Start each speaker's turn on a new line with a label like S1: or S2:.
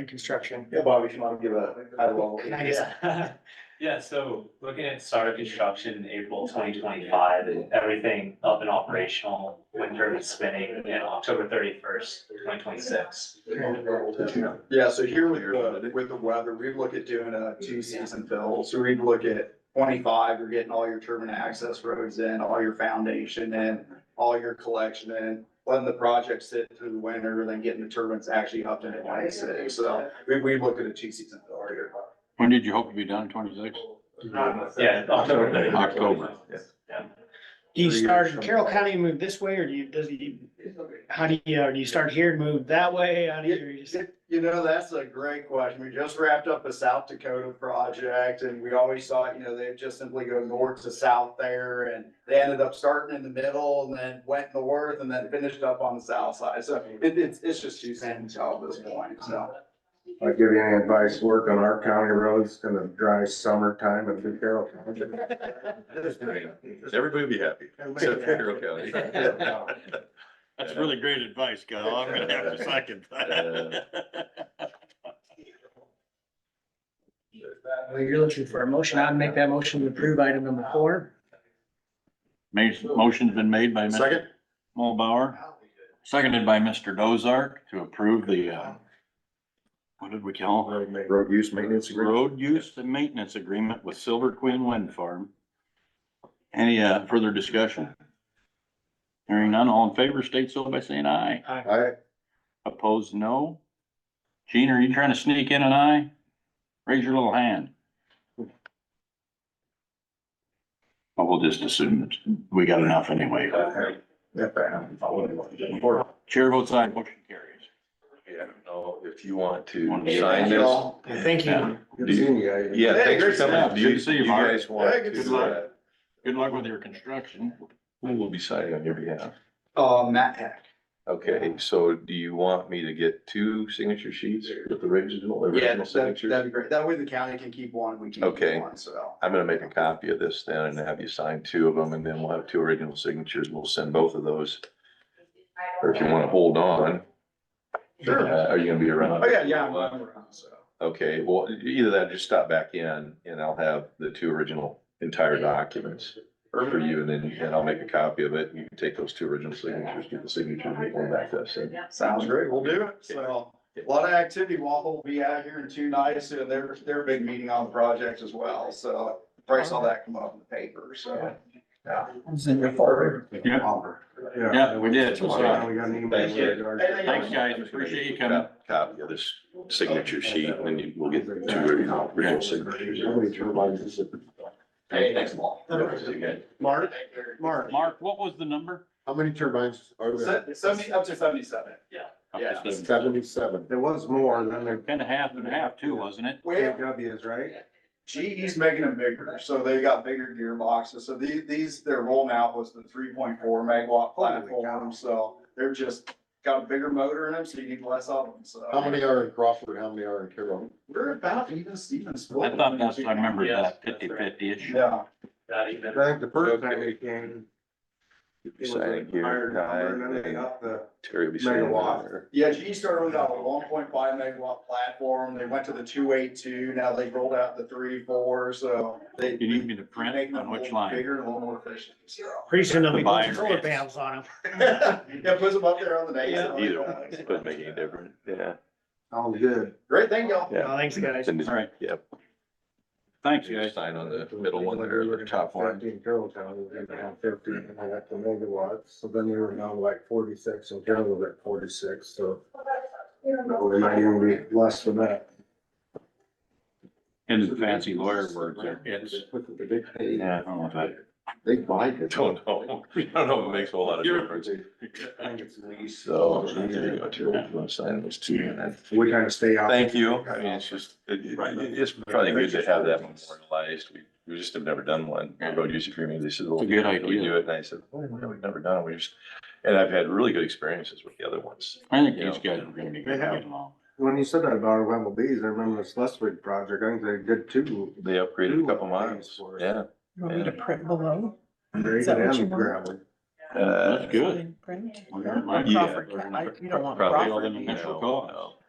S1: and construction.
S2: Bobby, if you want to give a high level.
S3: Yeah, yeah, so looking at start of construction in April twenty twenty-five, and everything up and operational, wind turbine spinning in October thirty-first, twenty twenty-six.
S2: Yeah, so here with the, with the weather, we look at doing a two season fill, so we'd look at twenty-five, you're getting all your turbine access roads in, all your foundation in, all your collection in, letting the project sit through the winter, then getting the turbines actually up to twenty-six, so we, we look at a two season fill here.
S4: When did you hope to be done, twenty-six?
S3: Yeah, October thirty.
S4: October,
S1: Do you
S2: Three
S1: start
S2: years
S1: in
S2: from
S1: Carroll
S2: now.
S1: County and move this way, or do you, does you, how do you, uh, do you start here and move that way? How do you- you? just-
S2: You know, that's a great question. We just wrapped up a South Dakota project and we always thought, you know, they'd just simply go north to south there and they ended up starting in the middle and then went north and then finished up on the south side. So it, it's, it's just too soon to tell at this point, so.
S5: I'd give you any advice, work on our county roads in the dry summertime and through Carroll County.
S6: Everybody will be happy, except for Carroll County.
S4: That's really great advice, Kyle. I'm gonna have to second that.
S1: Well, you're looking for a motion. I'd make that motion to approve item number four.
S4: Ma- Motion's been made by Mr.
S5: Second?
S4: Mulbauer, seconded by Mr. Dozark to approve the, uh, what did we call it?
S5: Road use maintenance agreement.
S4: Road use and maintenance agreement with Silver Queen Wind Farm. Any, uh, further discussion? Hearing none, all in favor, state so by saying aye.
S5: I,
S4: Opposed, no. Gene, are you trying to sneak in an eye? Raise your little hand. Well, we'll just assume that we got enough anyway.
S5: that bad.
S4: Chair votes aye, motion carries.
S6: Yeah, I don't know Oh, if you want to
S4: Want to
S6: sign
S2: Thank you
S6: this.
S2: all.
S1: Thank you.
S5: Good seeing you guys.
S6: Yeah,
S2: Hey,
S6: thanks for
S2: great to
S6: coming.
S4: see
S6: Do
S4: you. Good to see you, Mark.
S6: guys want
S2: Hey, good to see
S6: to,
S2: you.
S6: uh,
S4: Good luck with your construction.
S6: who will be signing on your behalf?
S2: Uh, Matt Heck.
S6: Okay, so do you want me to get two signature sheets with the original,
S2: Yeah,
S6: original
S2: that'd, that'd
S6: signatures?
S2: be great. That way the county can keep one, we can
S6: Okay.
S2: keep one, so.
S6: I'm gonna make a copy of this then and have you sign two of them and then we'll have two original signatures. We'll send both of those. Or if you wanna hold on, uh,
S2: Sure.
S6: are you gonna be around?
S2: Oh, yeah, yeah, I'm I'm around, so.
S6: Okay, well, either that, or just stop back in and I'll have the two original entire documents for you and then, and I'll make a copy of it. You can take those two original signatures, get the signature and make one back to us. and-
S2: Sounds great, we'll do it. So, a lot of activity, Waffle will be out here in two nights, and they're, they're a big meeting on the project as well, so. Probably saw that come up in the paper, so. Yeah.
S4: Yeah. Yeah, we did.
S5: We got an email.
S6: Thank
S4: Thanks, guys. Appreciate you coming.
S6: Cop- Copy of this signature sheet and then you- we'll get the two original original signatures.
S2: Hey, thanks, Paul.
S6: Yep, see you guys.
S2: Mark? Mark.
S4: Mark, what was the number?
S5: How many turbines are there?
S2: Seventy, up to seventy-seven. Yeah.
S5: Seventy-seven. There was more than there.
S4: Kind of half and half too, wasn't it?
S2: Well,
S5: KWs, right?
S2: GE's making them bigger, so they got bigger gearboxes, so these, these, their rollout was the three point four megawatt platform, so. They're just, got a bigger motor in them, so you need less of them, so.
S5: How many are in Crawford? How many are in Carroll?
S2: We're about even Steven split.
S4: I thought that's, I remember that fifty-fifty-ish.
S2: Yeah.
S3: Not even.
S5: I think the
S6: first time
S5: they came.
S6: Sign here, Ty,
S5: the.
S6: Terry will be signing.
S5: Megawatt.
S6: there.
S2: Yeah, GE started out with a one point five megawatt platform, they went to the two eight two, now they rolled out the three four, so they.
S4: You need me to
S2: make
S4: print
S2: them
S4: on
S2: a
S4: which
S2: little
S4: line?
S2: Bigger and a little more efficient, so.
S1: Pretty soon they'll be
S4: The buyer
S1: putting solar
S4: is.
S1: panels on them.
S2: Yeah, puts them up there on the day.
S6: Yeah, either one, it doesn't make any difference, yeah.
S5: Sounds good.
S2: Great, thank y'all.
S6: Yeah.
S1: Oh, Thanks, guys.
S6: And
S4: All right.
S6: Yep.
S4: Thanks, guys.
S6: Sign on the middle one there, the top one.
S5: Fifteen Carroll County, we didn't have fifteen, and I got the megawatts, so then we were down to like forty-six, and Carroll was at forty-six, so. We might even be less than that.
S4: In fancy lawyer words there. It's, yeah, I don't know if I.
S5: They buy it.
S6: Don't know, I don't know if it makes a whole lot of difference. So, there you go, Terry, if you want to sign those two, and then,
S5: We kind of stay out.
S6: thank you, I mean, it's just, it- it- it's probably good to have that memorialized, we, we just have never done one, a road use agreement, they said, well,
S4: It's a good
S6: how do we
S4: idea.
S6: do it, and I said, well, no, we've never done, it. we just, and I've had really good experiences with the other ones.
S4: I think these guys are gonna be
S5: They
S4: good
S5: have.
S4: along.
S5: When you said that about our Wemble Bees, I remember this Leswig project, I think they did two.
S6: They upgraded a couple miles, yeah.
S7: Want me to
S6: Yeah.
S7: print below?
S5: Very
S7: Is that what you
S5: good
S7: want?
S5: gravel.
S6: Uh,
S4: That's good.
S7: Print?
S4: Or it might
S7: Or
S4: be-
S6: yeah.
S7: Crawford County? I- You don't want
S4: Probably
S6: Probably
S7: Crawford.
S4: all the
S6: No,
S4: initial
S6: no.
S4: cost.